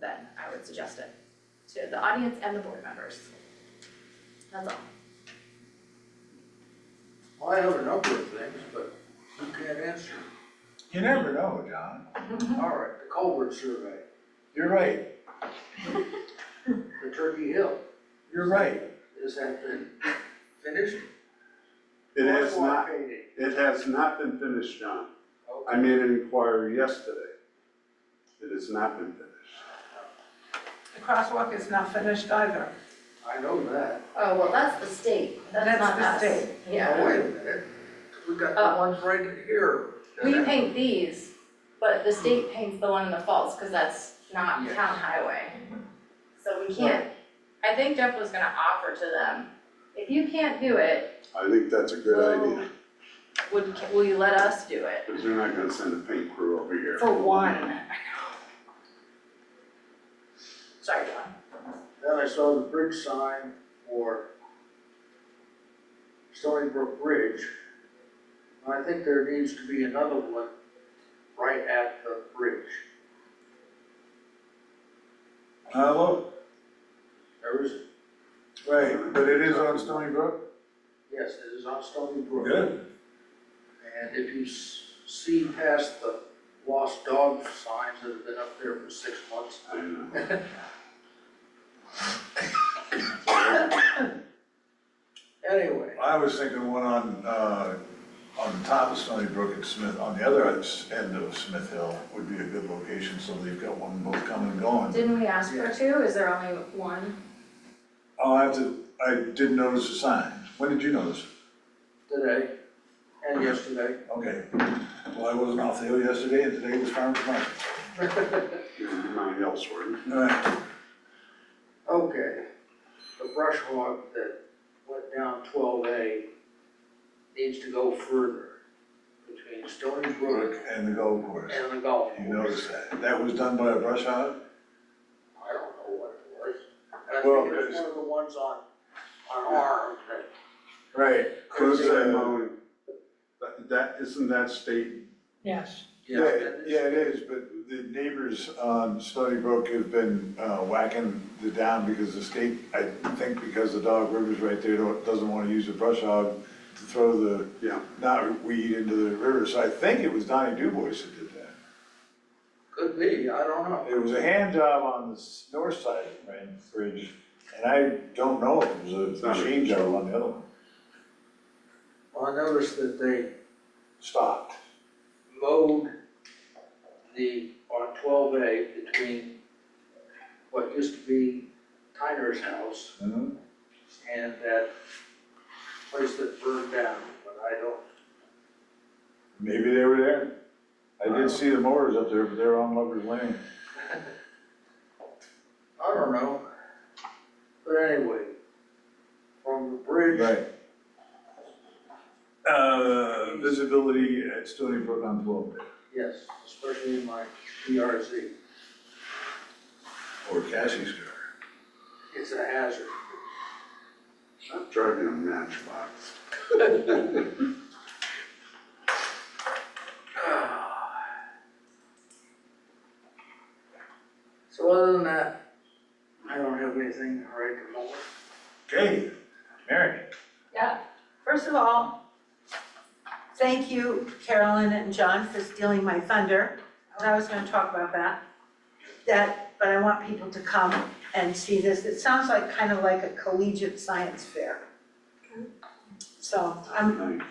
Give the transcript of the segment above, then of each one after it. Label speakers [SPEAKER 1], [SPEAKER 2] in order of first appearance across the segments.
[SPEAKER 1] then I would suggest it to the audience and the board members. That's all.
[SPEAKER 2] Well, I have a number of things, but you can't answer.
[SPEAKER 3] You never know, John.
[SPEAKER 1] Mm-hmm.
[SPEAKER 2] All right, the culvert survey,
[SPEAKER 3] You're right,
[SPEAKER 2] the Turkey Hill,
[SPEAKER 3] you're right.
[SPEAKER 2] is that been finished?
[SPEAKER 4] It has
[SPEAKER 2] Or
[SPEAKER 4] not,
[SPEAKER 2] blockaded?
[SPEAKER 4] it has not been finished, John. I
[SPEAKER 2] Okay,
[SPEAKER 4] made an inquiry yesterday. It has not been finished.
[SPEAKER 5] The crosswalk is not finished either.
[SPEAKER 2] I know that.
[SPEAKER 1] Oh, well, that's the state, that's
[SPEAKER 5] That's
[SPEAKER 1] not us.
[SPEAKER 5] the state.
[SPEAKER 1] Yeah.
[SPEAKER 2] Now, Oh, wait a minute, we got
[SPEAKER 1] Oh.
[SPEAKER 2] the ones right here.
[SPEAKER 1] We paint these, but the state paints the one in the falls, cause that's not
[SPEAKER 2] Yes.
[SPEAKER 1] town highway. So we can't, I think Jeff was gonna offer to them, if you can't do it,
[SPEAKER 4] I think that's a good
[SPEAKER 1] Well-
[SPEAKER 4] idea,
[SPEAKER 1] would, will you let us do it?
[SPEAKER 4] because they're not gonna send a paint crew over here.
[SPEAKER 1] For one. Sorry, John.
[SPEAKER 2] Then I saw the bridge sign for Stony Brook Bridge. And I think there needs to be another one right at the bridge.
[SPEAKER 3] Uh, look,
[SPEAKER 2] There is,
[SPEAKER 3] right, but it is on Stony Brook?
[SPEAKER 2] yes, it is on Stony Brook.
[SPEAKER 3] Good.
[SPEAKER 2] And if you s- see past the lost dog signs that have been up there for six months,
[SPEAKER 4] I know.
[SPEAKER 2] anyway,
[SPEAKER 3] I was thinking one on, uh, on the top of Stony Brook and Smith, on the other end of Smith Hill would be a good location, so they've got one both coming and going.
[SPEAKER 1] Didn't we ask for two, is there only one?
[SPEAKER 3] I'll have to, I did notice the sign. When did you notice?
[SPEAKER 2] today and yesterday,
[SPEAKER 3] Okay, well, I wasn't off the hill yesterday, and today was farmer's market.
[SPEAKER 4] You're in my elsewhere.
[SPEAKER 3] All right,
[SPEAKER 2] okay, the brush hog that went down twelve A needs to go further between Stony Brook
[SPEAKER 3] and the golf course,
[SPEAKER 2] and the golf
[SPEAKER 3] you
[SPEAKER 2] course.
[SPEAKER 3] noticed that. That was done by a brush hog?
[SPEAKER 2] I don't know what it was. And I
[SPEAKER 3] Well,
[SPEAKER 2] think it was
[SPEAKER 3] it's-
[SPEAKER 2] one of the ones on, on arm that
[SPEAKER 3] Right.
[SPEAKER 4] Cause I
[SPEAKER 3] uh,
[SPEAKER 4] mowing, that, that, isn't that state
[SPEAKER 5] Yes.
[SPEAKER 3] Yeah, yeah, it is, but the neighbors on Stony Brook have been uh, whacking the down because the state, I think because the Dog River's right there, don't- doesn't want to use the brush hog to throw the
[SPEAKER 4] Yeah.
[SPEAKER 3] knotweed into the river, so I think it was Donnie DuBois that did that.
[SPEAKER 2] Could be, I don't know.
[SPEAKER 3] It was a hand job on the s- north side of Rand Bridge, and I don't know if it was a
[SPEAKER 4] not a-
[SPEAKER 3] machine job on the other one.
[SPEAKER 2] Well, I noticed that they
[SPEAKER 3] Stopped.
[SPEAKER 2] mowed the, on twelve A between what used to be Tyner's house
[SPEAKER 3] Mhm.
[SPEAKER 2] and that place that burned down, but I don't,
[SPEAKER 3] Maybe they were there. I did see the mowers up there, but they were on Lover's Lane.
[SPEAKER 2] I don't know. But anyway, from the bridge.
[SPEAKER 3] Right. Uh, visibility at Stony Brook on twelve
[SPEAKER 2] Yes, especially in my PRZ,
[SPEAKER 3] Or Cassie's car.
[SPEAKER 2] it's a hazard.
[SPEAKER 4] I'm driving a matchbox.
[SPEAKER 2] So other than that, I don't have anything right at the moment.
[SPEAKER 3] Okay, Mary.
[SPEAKER 1] Yeah, first of all,
[SPEAKER 5] Thank you, Carolyn and John, for stealing my thunder. I was gonna talk about that. That, but I want people to come and see this. It sounds like, kind of like a collegiate science fair. So I'm,
[SPEAKER 4] Nice.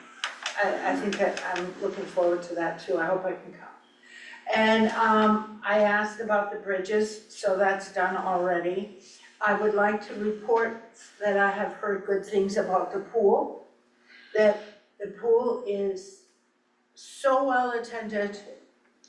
[SPEAKER 5] I, I think that I'm looking forward to that too. I hope I can come. And, um, I asked about the bridges, so that's done already. I would like to report that I have heard good things about the pool. That the pool is so well attended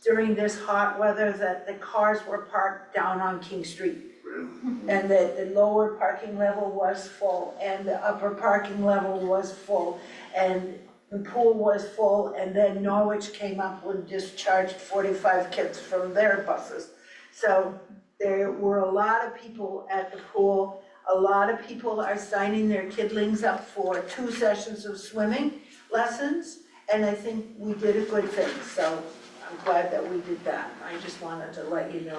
[SPEAKER 5] during this hot weather that the cars were parked down on King Street.
[SPEAKER 4] Really?
[SPEAKER 5] And that the lower parking level was full and the upper parking level was full and the pool was full and then Norwich came up and discharged forty-five kids from their buses. So there were a lot of people at the pool. A lot of people are signing their kidlings up for two sessions of swimming lessons. And I think we did a good thing, so I'm glad that we did that. I just wanted to let you know